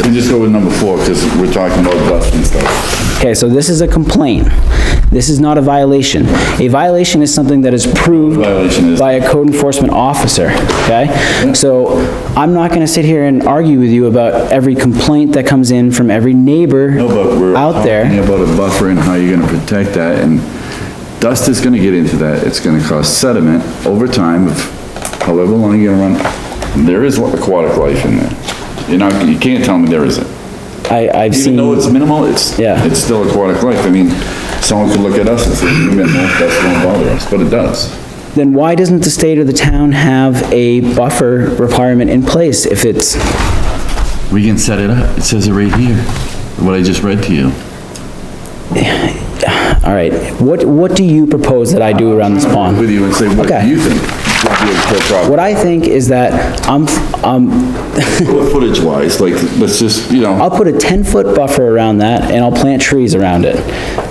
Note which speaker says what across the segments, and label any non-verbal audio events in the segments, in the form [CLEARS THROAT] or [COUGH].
Speaker 1: can just go with number four, because we're talking about dust and stuff.
Speaker 2: Okay, so this is a complaint. This is not a violation. A violation is something that is proved
Speaker 1: Violation is-
Speaker 2: by a code enforcement officer, okay? So I'm not gonna sit here and argue with you about every complaint that comes in from every neighbor
Speaker 1: No, but we're
Speaker 2: out
Speaker 1: talking
Speaker 2: there.
Speaker 1: About a buffer and how you're gonna protect that, and dust is gonna get into that, it's gonna cause sediment over time, of however long you're gonna run. There is aquatic life in there. You're not, you can't tell me there isn't.
Speaker 2: I, I've
Speaker 1: Even though
Speaker 2: seen,
Speaker 1: it's minimal, it's,
Speaker 2: Yeah.
Speaker 1: it's still aquatic life. I mean, someone could look at us and say, minimal, that won't bother us, but it does.
Speaker 2: then why doesn't the state or the town have a buffer requirement in place if it's,
Speaker 1: We can set it up. It says it right here, what I just read to you.
Speaker 2: all right, what, what do you propose that I do around this pond?
Speaker 1: With you and say, what
Speaker 2: Okay.
Speaker 1: do you think would be a fair problem?
Speaker 2: What I think is that I'm, um,
Speaker 1: Footage wise, like, let's just, you know,
Speaker 2: I'll put a 10-foot buffer around that, and I'll plant trees around it,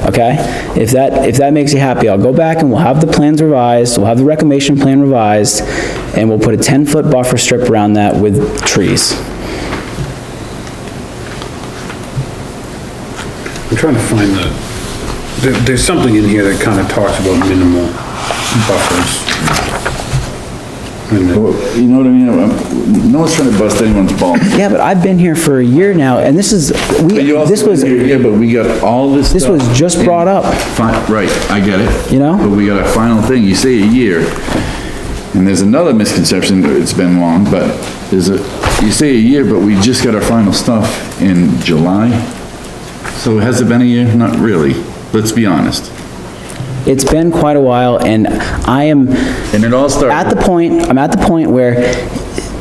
Speaker 2: okay? If that, if that makes you happy, I'll go back and we'll have the plans revised, we'll have the reclamation plan revised, and we'll put a 10-foot buffer strip around that with trees.
Speaker 3: I'm trying to find the, there, there's something in here that kind of talks about minimal buffers. And the-
Speaker 1: you know what I mean? I'm- No one's trying to bust anyone's balls.
Speaker 2: Yeah, but I've been here for a year now, and this is,
Speaker 1: But
Speaker 2: we,
Speaker 1: you also-
Speaker 2: this was,
Speaker 1: Yeah, but we got all this
Speaker 2: this was
Speaker 1: stuff.
Speaker 2: just brought up.
Speaker 1: Fine, right, I get it.
Speaker 2: You know?
Speaker 1: But we got a final thing, you say a year, and there's another misconception, that it's been long, but there's a, you say a year, but we just got our final stuff in July? So has it been a year? Not really, let's be honest.
Speaker 2: It's been quite a while, and I am,
Speaker 1: And it all
Speaker 2: at the
Speaker 1: started,
Speaker 2: point, I'm at the point where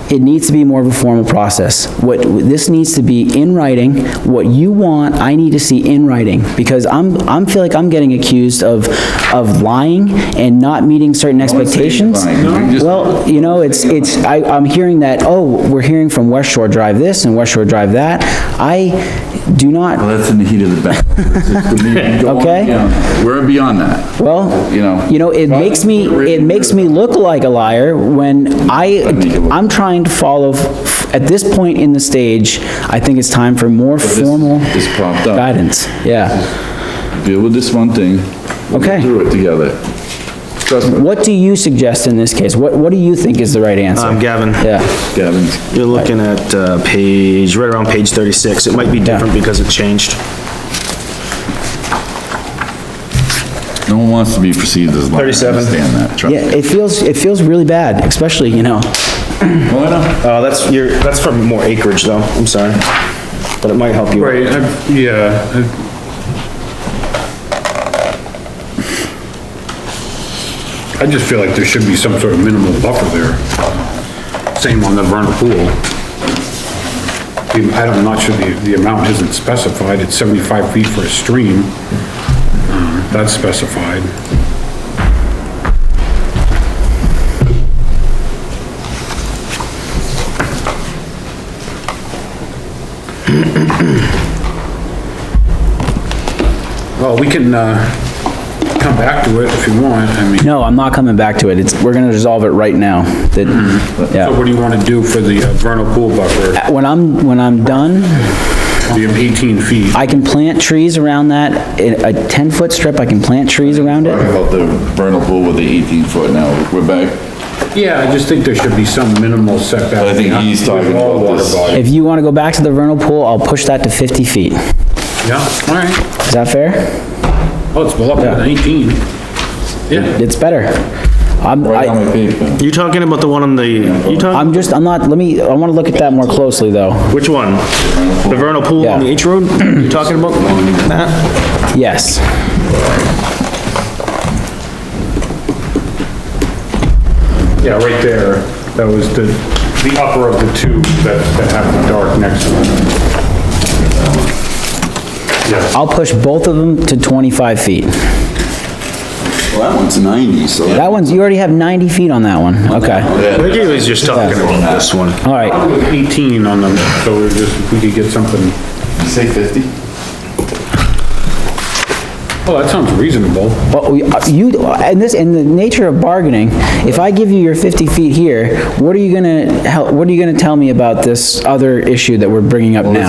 Speaker 2: it needs to be more of a formal process. What, this needs to be in writing, what you want, I need to see in writing, because I'm, I'm, feel like I'm getting accused of, of lying and not meeting certain
Speaker 1: one's saying you're
Speaker 2: expectations.
Speaker 1: lying. No. You're just-
Speaker 2: Well, you know, it's, it's, I, I'm hearing that, oh, we're hearing from West Shore Drive this and West Shore Drive that. I do not,
Speaker 1: well, that's in the heat of the [LAUGHS] battle.
Speaker 2: Okay.
Speaker 1: Yeah, We're beyond that,
Speaker 2: well,
Speaker 1: you know?
Speaker 2: You know, it makes me, it makes me look like a liar when I, I'm trying to follow, at this point in the stage, I think it's time for more formal
Speaker 1: This popped up.
Speaker 2: guidance, yeah.
Speaker 1: Deal with this one thing. We'll get
Speaker 2: Okay.
Speaker 1: Through it together. Trust me,
Speaker 2: What do you suggest in this case? What, what do you think is the right
Speaker 4: Um,
Speaker 2: answer?
Speaker 4: Gavin,
Speaker 2: Yeah,
Speaker 1: Gavin's
Speaker 4: you're looking at, uh, page, right around page thirty-six. It might be different because it changed.
Speaker 1: No one wants to be perceived as lying.
Speaker 4: 37.
Speaker 1: I understand that, trust
Speaker 2: yeah,
Speaker 1: me.
Speaker 2: it feels, it feels really bad, especially, you know,
Speaker 1: Well, I know.
Speaker 4: Uh, that's your, that's for more acreage though, I'm sorry. But it might help you.
Speaker 3: Right, I, yeah, I- I just feel like there should be some sort of minimal buffer there. Same on the vernal pool. I don't- I'm not sure the, the amount isn't specified, it's seventy-five feet for a stream. Um, That's specified. Well, we can, uh, come back to it if you want, I mean,
Speaker 2: no, I'm not coming back to it, it's, we're gonna resolve it right now, that,
Speaker 3: so
Speaker 2: yeah. Uh,
Speaker 3: what do you wanna do for the uh, vernal pool buffer,
Speaker 2: When I'm, when I'm done,
Speaker 3: the eighteen feet?
Speaker 2: I can plant trees around that, a 10-foot strip, I can plant trees around it.
Speaker 1: Talking about the vernal pool with the 18 foot now, we're back.
Speaker 3: Yeah, I just think there should be some minimal setback.
Speaker 1: I think he's talking
Speaker 3: All
Speaker 1: about
Speaker 3: water
Speaker 1: this.
Speaker 3: bodies.
Speaker 2: If you want to go back to the vernal pool, I'll push that to 50 feet. Is
Speaker 3: Yeah, all right.
Speaker 2: that fair?
Speaker 3: Oh, it's well up to 19. Yeah,
Speaker 2: It's better. I'm,
Speaker 1: Right on
Speaker 2: I,
Speaker 1: my paper.
Speaker 4: You talking about the one on the, you talking,
Speaker 2: I'm just, I'm not, let me, I want to look at that more closely, though.
Speaker 4: which one? The vernal pool on the
Speaker 2: Yeah.
Speaker 4: H road? You
Speaker 2: [CLEARS THROAT]
Speaker 4: talking about that?
Speaker 2: Yes.
Speaker 3: yeah, right there. That was the, the upper of the two that, that have the dark next to it. Yeah,
Speaker 2: I'll push both of them to 25 feet.
Speaker 5: Well, that one's 90, so
Speaker 2: That one's, you already have 90 feet on that one. Okay.
Speaker 4: I think he was just talking about this one.
Speaker 2: All right.
Speaker 3: probably 18 on them, so we're just, if we could get something,
Speaker 1: You say 50?
Speaker 3: oh, that sounds reasonable.
Speaker 2: But we- uh, you, and this, in the nature of bargaining, if I give you your 50 feet here, what are you gonna, hel- what are you gonna tell me about this other issue that we're bringing up now?